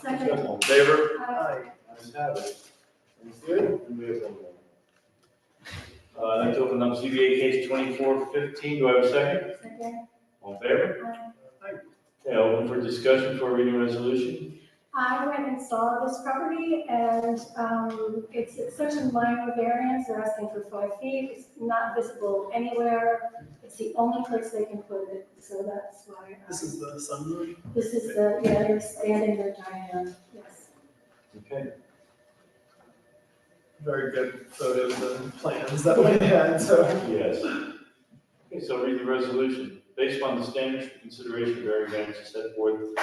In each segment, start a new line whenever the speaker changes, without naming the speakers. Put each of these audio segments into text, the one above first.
Second.
All in favor?
Aye.
Ayes have it. Thanks, good. And we have one more. Uh, I'd like to open up ZBA case twenty-four fifteen. Do I have a second?
Second.
All in favor?
Aye.
Okay, open for discussion for reading resolution.
I went and saw this property and, um, it's it's such a minor variance, they're asking for five feet, it's not visible anywhere. It's the only place they can put it, so that's why. uh,
This is the sunroom.
This is the, yeah, they're expanding their diagram, yes.
Okay.
Very good photos and plans that we had, so.
Yes. Okay, so read the resolution. Based on the standards for consideration various variances set forth in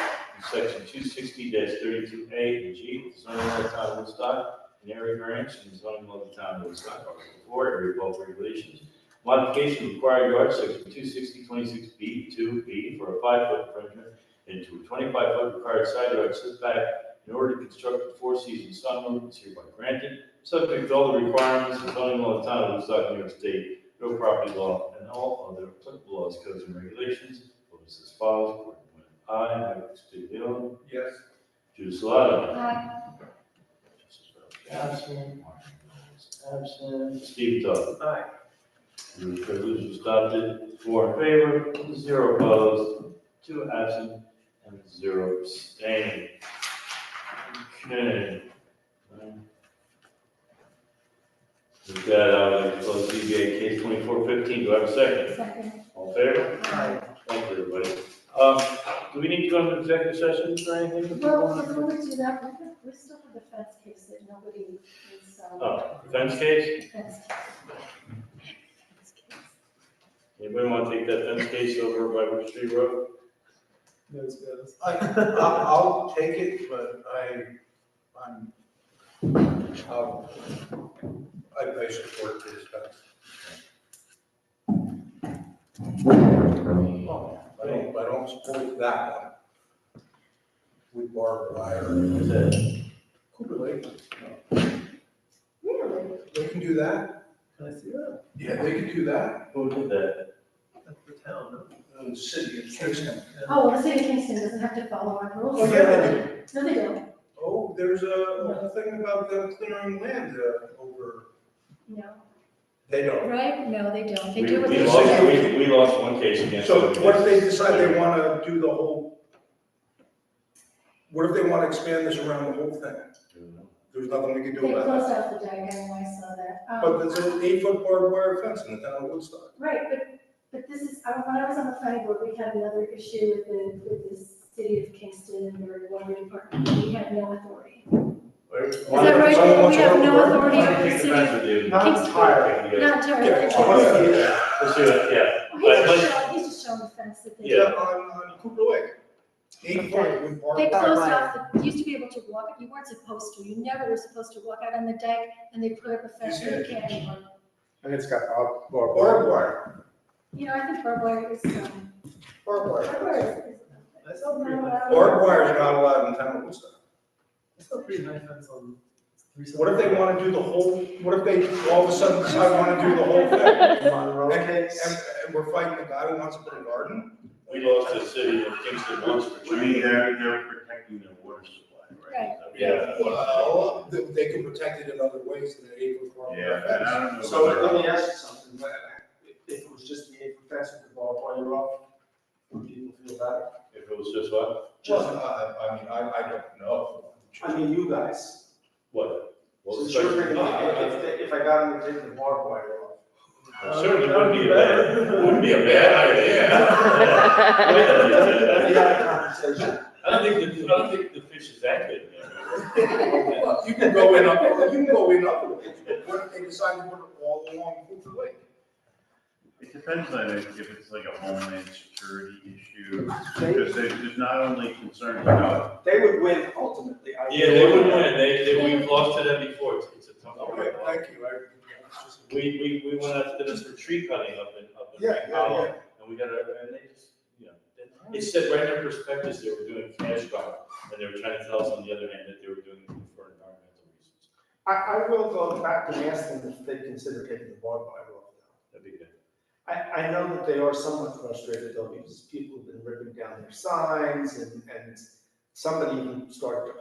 section two sixty thirty-two A and G, zoning law of the town of Woodstock, and area variance in zoning law of the town of Woodstock, Article four, area bulk regulations. Modification of required yard section two sixty twenty-six B two B for a five-foot perimeter into a twenty-five-foot required side yard setback in order to construct a four-season sunroom is hereby granted, subject to all the requirements of zoning law of the town of Woodstock, New York State, real property law, and all other applicable laws, codes, and regulations. Ordinance as follows, Gordon Moore, aye, Michael Stuhlio,
Yes.
Jude Salado.
Aye.
Justice Ralph Johnson, Martin Rhodes absent, Steve Douglas.
Aye.
The resolution is adopted, four in favor, zero opposed, two absent, and zero abstaining. Okay. With that, I would like to close ZBA case twenty-four fifteen, do I have a second?
Second.
All in favor?
Aye.
Thank you, everybody. Um, do we need to go into executive session or anything? Oh,
Well, before we do that, we have- we still have the fence case that nobody is, um,
Oh, fence case?
fence case.
Anybody want to take that fence case over by Wood Street Road?
Those guys.
I, I'll I'll take it, but I, I'm, I'll- I, I support this, but Oh, I don't, I don't support that one. With barbed wire.
Is it?
Cooper Lake,
Really?
they can do that?
Can I see that?
Yeah. They can do that?
Who did that?
That's the town.
Uh, The city of Kingston.
Oh, the city of Kingston doesn't have to follow our rules.
Oh, yeah, they
No, they don't,
Oh, there's a, a thing about them clearing land uh, over.
no.
They don't.
Right? No, they don't, they
We-
do what
we
they
lost-
say.
We, we lost one case against.
So what if they decide they want to do the whole? What if they want to expand this around the whole thing? There's nothing we can
They
do about
closed
that.
off the diagram, I saw that. Um,
But there's an eight-foot barbed wire fence in the town of Woodstock.
Right, but, but this is, I- when I was on the planning board, we had another issue with the, with the city of Kingston and their water department, we had no authority.
Is
that right? We have no authority over the city.
Not entirely.
Not
Yeah,
terribly.
so what if you-
yeah.
He's just showing, he's just showing the fence that they.
Yeah.
On, on Cooper Lake. Eight-foot with
They
barbed wire.
closed off, the- you used to be able to walk, you weren't supposed to, you never were supposed to walk out on the deck, and they put up a fence
You
that you can't anymore.
And it's got bar- bar- bar-
Barbed wire,
You know, I think barbed wire is, um,
barbed wire.
barbed wire is.
That's not pretty much.
Barbed wire is not allowed in the town of Woodstock.
That's not pretty high fence on.
What if they want to do the whole, what if they all of a sudden decide want to do the whole thing?
Monroe
And, and,
case.
and we're fighting the guy who wants to put a garden?
We lost the city of Kingston once for
I
trying.
mean, they're, they're protecting their water supply, right?
Yeah.
Well, they, they could protect it in other ways than the eight-foot barbed wire
Yeah,
fence.
and I don't know.
So
whether-
let me ask you something, Like, if it was just the eight fence with the barbed wire off, would people feel better?
If it was just what?
Well, I, I mean, I, I don't know.
I mean, you guys.
What? Well,
Since you're bringing
certainly-
it, if, if- if I got them to take the barbed wire off.
Well, Certainly wouldn't be a bad, wouldn't be a bad idea. Wait a
We
minute.
had a conversation.
I don't think, the- I don't think the fish is that good. man.
Well, You can go in up, you can go in up. What if they decide to put it all along Hoover Lake?
It depends on if if it's like a homeland security issue, because there's, there's not only concerns about,
They would win ultimately. I
Yeah, they would win, they, they, we've lost to them before, it's, it's a tough.
Okay, thank you. I-
We, we, we went out to them for tree cutting up in, up in.
Yeah, yeah,
Powell, And we got a, and they just, you know, they- it said right in their prospectus, they were doing cash crop, and they were trying to tell us on the other hand that they were doing it for environmental reasons.
I, I will go back and ask them if they consider taking the barbed wire off now.
That'd be good.
I, I know that they are somewhat frustrated though, because people have been ripping down their signs and, and somebody even started to